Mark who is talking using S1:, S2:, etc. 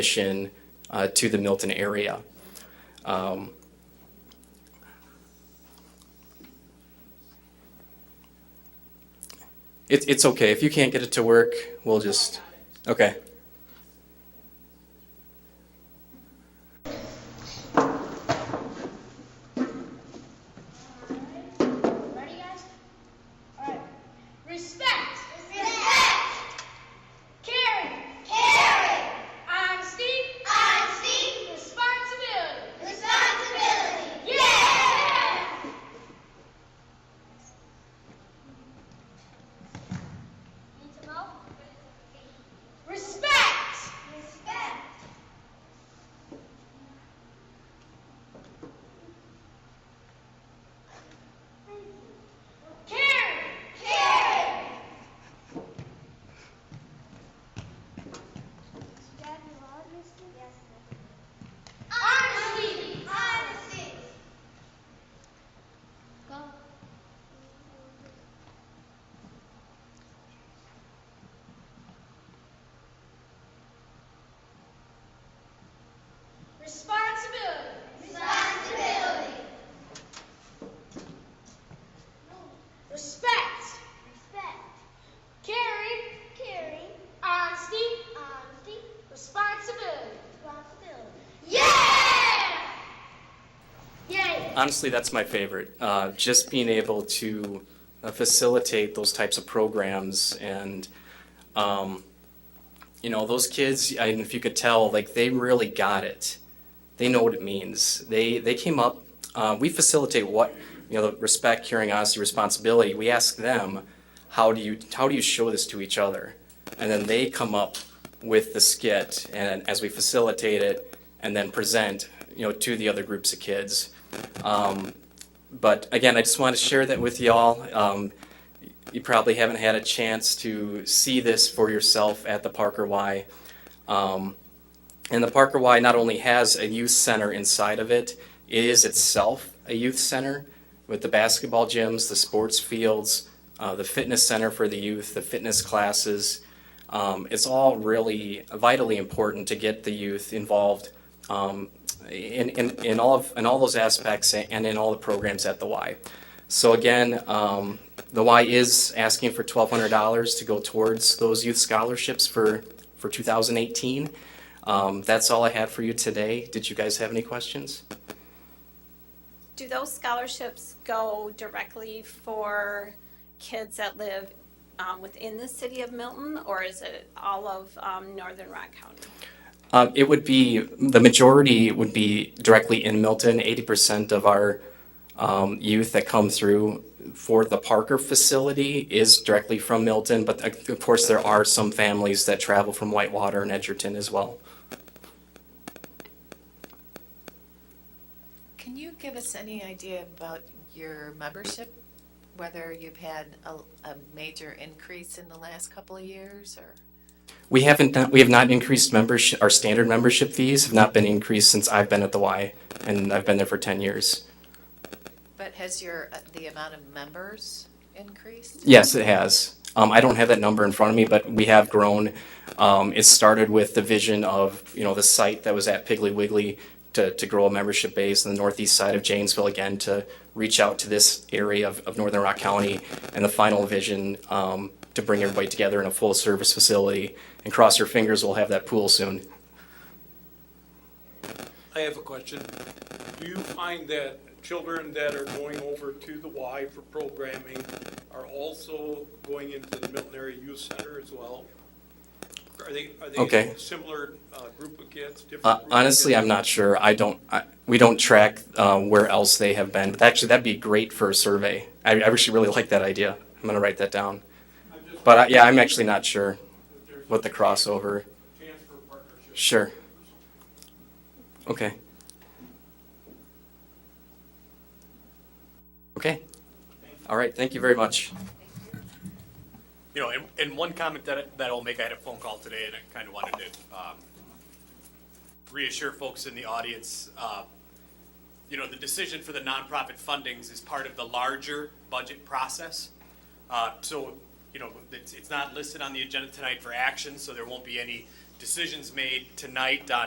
S1: mission uh, to the Milton area. Um, it, it's okay. If you can't get it to work, we'll just. Okay.
S2: Ready, guys? All right. Respect. Respect. Caring. Caring. Honesty. Honesty. Responsibility. Responsibility. Yeah. Need some help? Respect. Respect. Caring. Caring. Honesty. Honesty. Go. Responsibility. Responsibility. Respect. Respect. Caring. Caring. Honesty. Honesty. Responsibility. Responsibility. Yeah! Yay!
S1: Honestly, that's my favorite. Uh, just being able to uh, facilitate those types of programs and, um, you know, those kids, I, if you could tell, like they really got it. They know what it means. They, they came up, uh, we facilitate what, you know, the respect, caring, honesty, responsibility. We ask them, how do you, how do you show this to each other? And then they come up with the skit and as we facilitate it and then present, you know, to the other groups of kids. Um, but again, I just want to share that with y'all. Um, you probably haven't had a chance to see this for yourself at the Parker Y. Um, and the Parker Y not only has a youth center inside of it, it is itself a youth center with the basketball gyms, the sports fields, uh, the fitness center for the youth, the fitness classes. Um, it's all really vitally important to get the youth involved um, in, in, in, all of, in all those aspects and in all the programs at the Y. So again, um, the Y is asking for $1,200 to go towards those youth scholarships for, for 2018. Um, that's all I had for you today. Did you guys have any questions?
S3: Do those scholarships go directly for kids that live um, within the city of Milton, or is it all of um, Northern Rock County?
S1: Um, it would be, the majority would be directly in Milton. 80% of our um, youth that come through for the Parker facility is directly from Milton, but uh, of course, there are some families that travel from Whitewater and Edgerton as well.
S4: Can you give us any idea about your membership? Whether you've had a, a major increase in the last couple of years or?
S1: We haven't, done- we have not increased membership, our standard membership fees have not been increased since I've been at the Y, and I've been there for 10 years.
S4: But has your, uh, the amount of members increased?
S1: Yes, it has. Um, I don't have that number in front of me, but we have grown. Um, it started with the vision of, you know, the site that was at Piggly Wiggly to, to grow a membership base in the northeast side of Janesville again to reach out to this area of, of Northern Rock County and the final vision um, to bring everybody together in a full service facility. And cross your fingers, we'll have that pool soon.
S5: I have a question. Do you find that children that are going over to the Y for programming are also going into the Milton Area Youth Center as well? Are they, are they
S1: Okay.
S5: a similar uh, group of kids, different?
S1: Uh,
S5: group of
S1: honestly,
S5: kids?
S1: I'm not sure. I don't, I, we don't track uh, where else they have been. But actually, that'd be great for a survey. I, I actually really like that idea. I'm going to write that down.
S5: I'm just-
S1: But I, yeah, I'm actually not sure
S5: if there's
S1: what the crossover.
S5: a Chance for partnership.
S1: Sure. Okay. Okay. All right. Thank you very much.
S6: You know, and, and one comment that, I- that I'll make, I had a phone call today and I kind of wanted to, um, reassure folks in the audience, uh, you know, the decision for the nonprofit fundings is part of the larger budget process. Uh, so, you know, it's, it's not listed on the agenda tonight for action, so there won't be any decisions made tonight on